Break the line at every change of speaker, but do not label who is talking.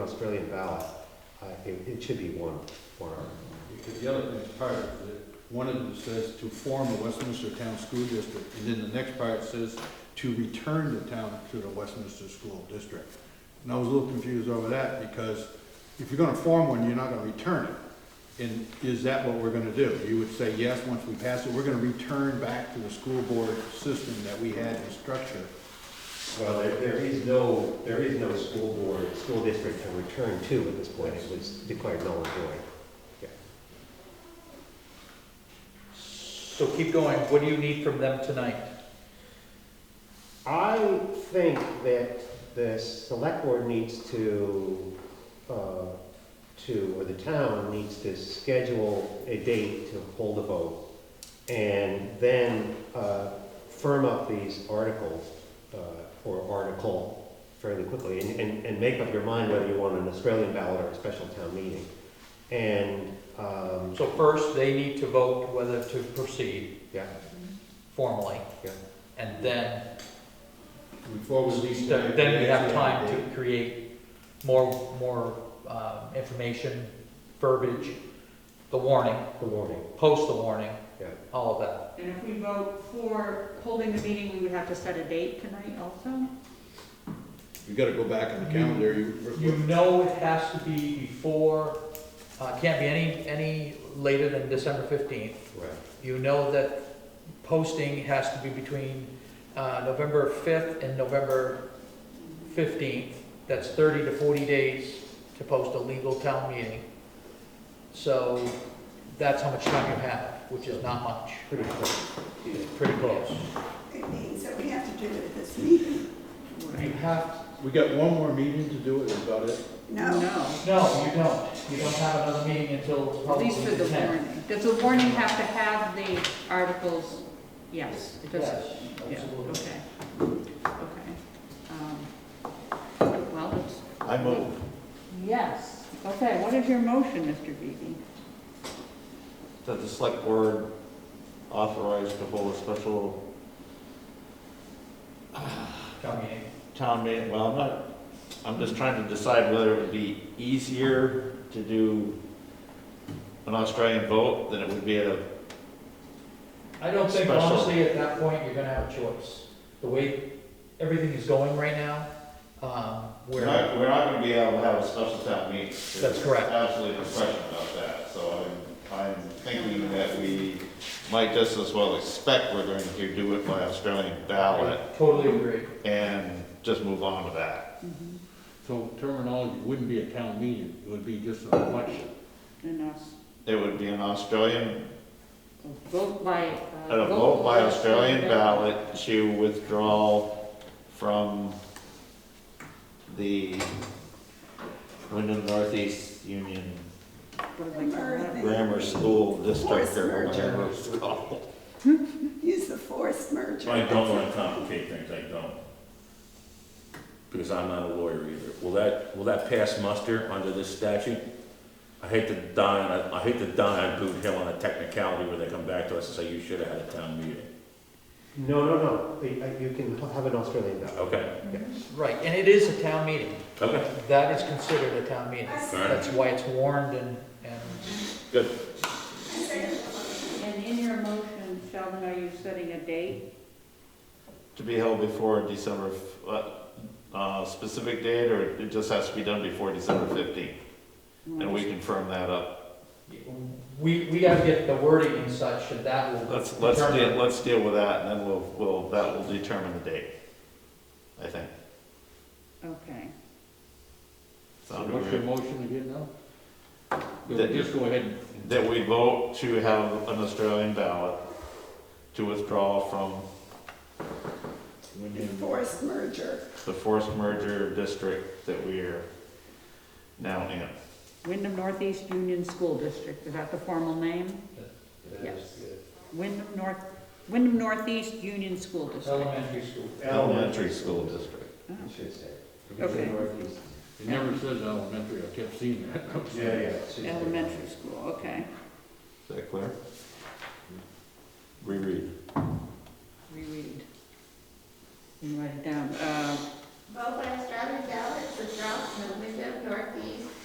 Australian ballot, I think it should be one, one article.
Because the other thing is part of it, one of them says to form a Westminster Town School District, and then the next part says to return the town to the Westminster School District. And I was a little confused over that, because if you're gonna form one, you're not gonna return it. And is that what we're gonna do? You would say, yes, once we pass it, we're gonna return back to the school board system that we had in structure.
Well, there, there is no, there is no school board, school district to return to at this point, it was declared null and void.
So keep going, what do you need from them tonight?
I think that the select board needs to, uh, to, or the town needs to schedule a date to hold a vote. And then, uh, firm up these articles, uh, or article fairly quickly and, and, and make up your mind whether you want an Australian ballot or a special town meeting. And, um,
So first, they need to vote whether to proceed
yeah,
formally.
Yeah.
And then,
Before we leave. tonight,
then we have
actually
time
have a
to create more, more, um, information, verbiage, the warning,
the warning,
post the warning,
yeah.
all of that.
And if we vote for holding the meeting, we would have to set a date tonight also?
date. You gotta go back on the calendar, you.
You know it has to be before, uh, can't be any, any later than December fifteenth.
Right.
You know that posting has to be between uh, November 5th and November 15th. That's 30 to 40 days to post a legal town meeting. So that's how much time you have, which is not much.
Pretty close.
Pretty close.
It means that we have to do it at this meeting.
You have,
We got one more meeting to do it, is about it.
No,
no, you don't. You don't have another meeting until
At least for
probably
the
the 10th.
warning. Does the warning have to have the articles? Yes, it does.
Yes,
Yeah,
absolutely.
okay, okay. Um, Well, it's.
I move.
Yes, okay, what is your motion, Mr. Beebe?
that the select board authorized to hold a special
Town meeting.
town meeting, well, I'm not, I'm just trying to decide whether it would be easier to do an Australian vote than it would be at a,
I don't think
Special.
honestly, at that point, you're gonna have a choice. The way everything is going right now, um,
we're
where.
not, we're not gonna be able to have a special town meeting. There's
That's correct.
Absolutely no question about that, so I'm, I'm thinking that we might just as well expect we're going to do it by Australian ballot
I Totally agree.
and just move on to that.
So terminology wouldn't be a town meeting, it would be just an election.
And us,
It would be an Australian
vote by. uh,
At a vote by Australian ballot to withdraw from the Wyndham Northeast Union
What do they call that?
Grammar School District or
Forced merger.
whatever it's called.
use the forced merger.
I don't wanna complicate things, I don't. Because I'm not a lawyer either. Will that, will that pass muster under this statute? I hate to die on, a- I hate to die on Boot Hill on a technicality where they come back to us and say, you should have had a town meeting.
No, no, no, you uh, you can have an Australian ballot.
Okay,
Right, and it is a town meeting.
okay,
That is considered a town meeting. That's why it's warned and, and
good.
And in your motion, Sheldon, are you setting a date?
To be held before December, f- uh, uh, specific date, or it just has to be done before December fifteenth? And we can firm that up.
we, we gotta get the wording and such, and that will
Let's, let's deal,
determine.
let's deal with that, and then we'll, we'll, that will determine the date, I think.
Okay.
So
Sound
what's
agreeable?
your motion again now?
That-
Then Just go ahead and.
that we vote to have an Australian ballot to withdraw from
The forced merger.
the forced merger district that we are now in.
Wyndham Northeast Union School District, is that the formal name? Yes. Wyndham North, Wyndham Northeast Union School District.
Elementary school.
Elementary school district.
Oh,
It should say.
Okay.
Northeast.
It never says elementary, I kept seeing that.
Yeah, yeah. it should say.
Elementary school, okay.
Is that clear? Reread.
Reread. You can write it down. Uh,
Vote by Australian ballot for Charles from the Wyndham Northeast